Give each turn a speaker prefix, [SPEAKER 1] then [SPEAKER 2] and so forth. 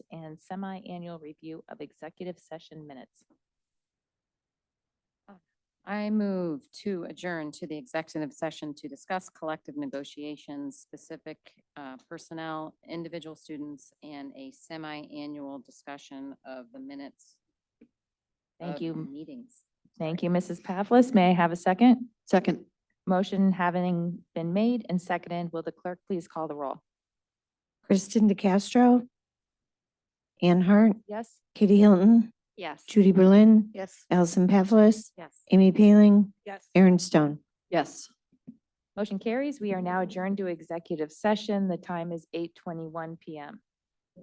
[SPEAKER 1] and semi-annual review of executive session minutes.
[SPEAKER 2] I move to adjourn to the executive session to discuss collective negotiations, specific uh, personnel, individual students, and a semi-annual discussion of the minutes.
[SPEAKER 1] Thank
[SPEAKER 2] of
[SPEAKER 1] you,
[SPEAKER 2] Meetings.
[SPEAKER 1] thank you, Mrs. Pavlis. May I have a second?
[SPEAKER 3] Second.
[SPEAKER 1] Motion having been made and seconded, will the clerk please call the roll?
[SPEAKER 3] Kristen DeCastro. Anne Hart,
[SPEAKER 1] Yes?
[SPEAKER 3] Katie Hilton,
[SPEAKER 2] Yes.
[SPEAKER 3] Judy Berlin.
[SPEAKER 2] Yes.
[SPEAKER 3] Allison Pavlis,
[SPEAKER 2] Yes.
[SPEAKER 3] Amy Paling,
[SPEAKER 2] Yes.
[SPEAKER 3] Aaron Stone.
[SPEAKER 2] Yes.
[SPEAKER 1] Motion carries. We are now adjourned to executive session. The time is eight twenty-one PM.